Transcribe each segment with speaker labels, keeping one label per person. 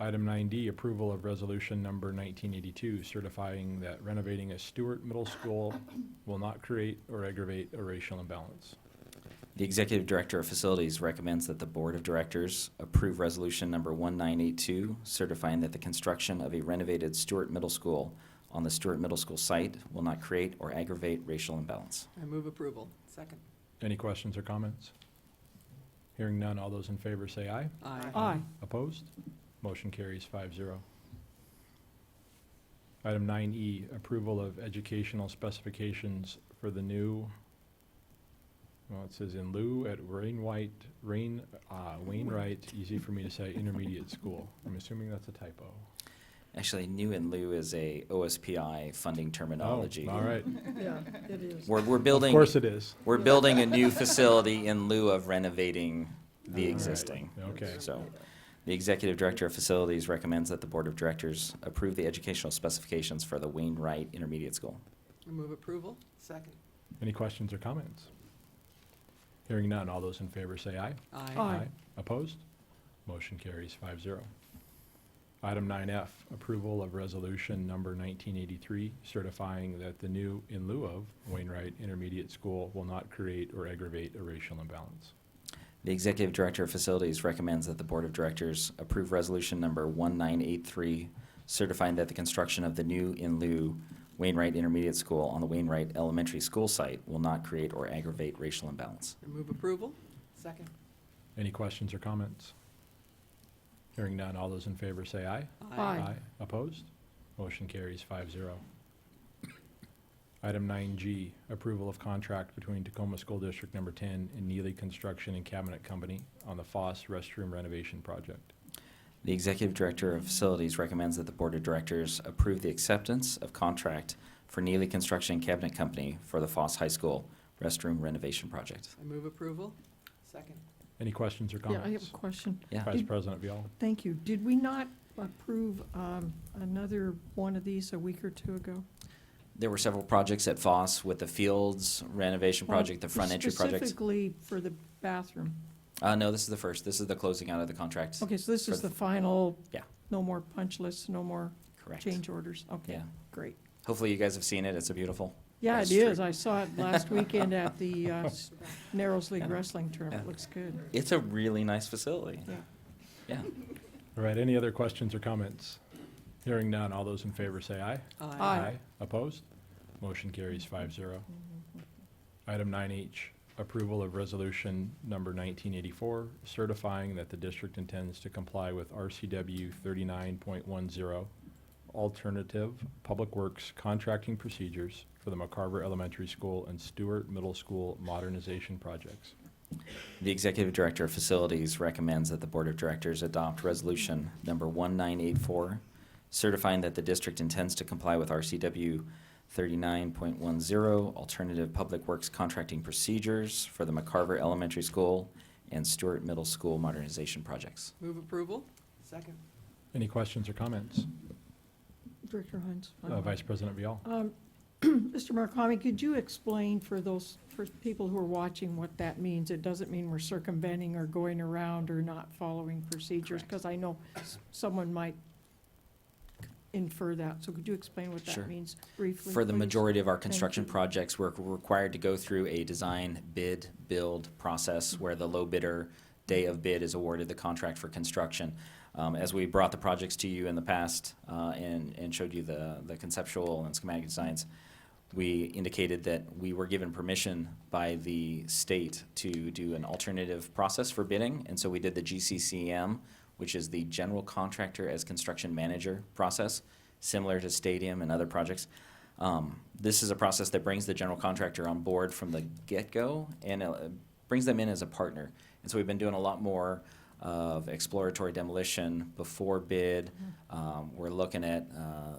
Speaker 1: Item 9D, approval of resolution number 1982, certifying that renovating a Stewart Middle School will not create or aggravate a racial imbalance.
Speaker 2: The Executive Director of Facilities recommends that the Board of Directors approve Resolution Number 1982, certifying that the construction of a renovated Stewart Middle School on the Stewart Middle School site will not create or aggravate racial imbalance.
Speaker 3: I move approval. Second.
Speaker 1: Any questions or comments? Hearing none, all those in favor say aye.
Speaker 3: Aye.
Speaker 4: Aye.
Speaker 1: Opposed? Motion carries 5-0. Item 9E, approval of educational specifications for the new, well, it says in lieu at Wainwright, Rain, uh, Wainwright, easy for me to say, intermediate school. I'm assuming that's a typo.
Speaker 2: Actually, new in lieu is a OSPI funding terminology.
Speaker 1: Oh, All right.
Speaker 4: Yeah, it is.
Speaker 2: We're, we're
Speaker 1: Of
Speaker 2: building,
Speaker 1: course it is.
Speaker 2: we're building a new facility in lieu of renovating the
Speaker 1: All right.
Speaker 2: existing.
Speaker 1: Okay.
Speaker 2: So, the Executive Director of Facilities recommends that the Board of Directors approve the educational specifications for the Wainwright Intermediate School.
Speaker 3: I move approval. Second.
Speaker 1: Any questions or comments? Hearing none, all those in favor say aye.
Speaker 4: Aye.
Speaker 1: Opposed? Motion carries 5-0. Item nine F, approval of resolution number nineteen eighty-three, certifying that the new in lieu of Wainwright Intermediate School will not create or aggravate a racial imbalance.
Speaker 2: The Executive Director of Facilities recommends that the Board of Directors approve Resolution Number 1983, certifying that the construction of the new in lieu Wainwright Intermediate School on the Wainwright Elementary School site will not create or aggravate racial imbalance.
Speaker 3: I move approval. Second.
Speaker 1: Any questions or comments? Hearing none, all those in favor say aye.
Speaker 4: Aye.
Speaker 1: Opposed? Motion carries 5-0. Item nine G, approval of contract between Tacoma School District Number Ten and Neely Construction and Cabinet Company on the Foss Restroom Renovation Project.
Speaker 2: The Executive Director of Facilities recommends that the Board of Directors approve the acceptance of contract for Neely Construction Cabinet Company for the Foss High School restroom renovation project.
Speaker 3: I move approval. Second.
Speaker 1: Any questions or
Speaker 4: Yeah, I have
Speaker 1: comments?
Speaker 4: a question.
Speaker 2: Yeah.
Speaker 1: Vice President Vial.
Speaker 4: Thank you. Did we not approve um, another one of these a week or two ago?
Speaker 2: There were several projects at Foss with the fields renovation project, the front entry project.
Speaker 4: Specifically for the bathroom.
Speaker 2: Uh, no, this is the first. This is the closing out of the contract.
Speaker 4: Okay, so this
Speaker 2: For
Speaker 4: is
Speaker 2: the-
Speaker 4: the final.
Speaker 2: Yeah.
Speaker 4: No more punch lists, no more
Speaker 2: Correct.
Speaker 4: change orders. Okay,
Speaker 2: Yeah.
Speaker 4: great.
Speaker 2: Hopefully you guys have seen it. It's a beautiful.
Speaker 4: Yeah,
Speaker 2: That's
Speaker 4: it
Speaker 2: true.
Speaker 4: is. I saw it last weekend at the uh, s- Narrows League Wrestling Tournament.
Speaker 2: Yeah.
Speaker 4: Looks good.
Speaker 2: It's a really nice facility.
Speaker 4: Yeah.
Speaker 2: Yeah.
Speaker 1: All right, any other questions or comments? Hearing none, all those in favor say aye.
Speaker 4: Aye.
Speaker 1: Opposed? Motion carries 5-0.
Speaker 4: Mm-hmm.
Speaker 1: Item nine H, approval of resolution number nineteen eighty-four, certifying that the district intends to comply with RCW thirty-nine point one zero, alternative public works contracting procedures for the McCarver Elementary School and Stewart Middle School modernization projects.
Speaker 2: The Executive Director of Facilities recommends that the Board of Directors adopt Resolution Number 1984, certifying that the district intends to comply with RCW 39.10, Alternative Public Works Contracting Procedures for the McCarver Elementary School and Stewart Middle School Modernization Projects.
Speaker 3: Move approval. Second.
Speaker 1: Any questions or comments?
Speaker 4: Director Hines.
Speaker 1: Uh, Vice President Vial.
Speaker 4: Um, Mr. Murakami, could you explain for those, for people who are watching what that means? It doesn't mean we're circumventing or going around or not following procedures,
Speaker 2: Correct.
Speaker 4: because I know s- someone might infer that. So could you explain what
Speaker 2: Sure.
Speaker 4: that means briefly?
Speaker 2: For the
Speaker 4: please?
Speaker 2: majority of our construction
Speaker 4: you.
Speaker 2: projects, we're required to go through a design, bid, build process where the low bidder, day of bid, is awarded the contract for construction. Um, as we brought the projects to you in the past, uh, and, and showed you the, the conceptual and schematic designs, we indicated that we were given permission by the state to do an alternative process for bidding, and so we did the GCCM, which is the General Contractor as Construction Manager process, similar to stadium and other projects. Um, this is a process that brings the general contractor on board from the get-go and uh, brings them in as a partner. And so we've been doing a lot more of exploratory demolition before bid. Um, we're looking at uh,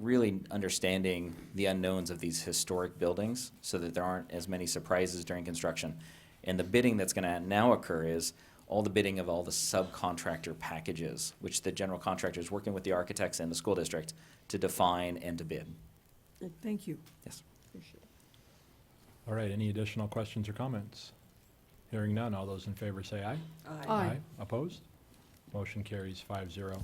Speaker 2: really understanding the unknowns of these historic buildings so that there aren't as many surprises during construction. And the bidding that's going to now occur is all the bidding of all the subcontractor packages, which the general contractor is working with the architects and the school district to define and to bid.
Speaker 4: Thank you.
Speaker 2: Yes.
Speaker 4: Appreciate it.
Speaker 1: All right, any additional questions or comments? Hearing none, all those in favor say aye.
Speaker 4: Aye.
Speaker 1: Opposed? Motion carries 5-0.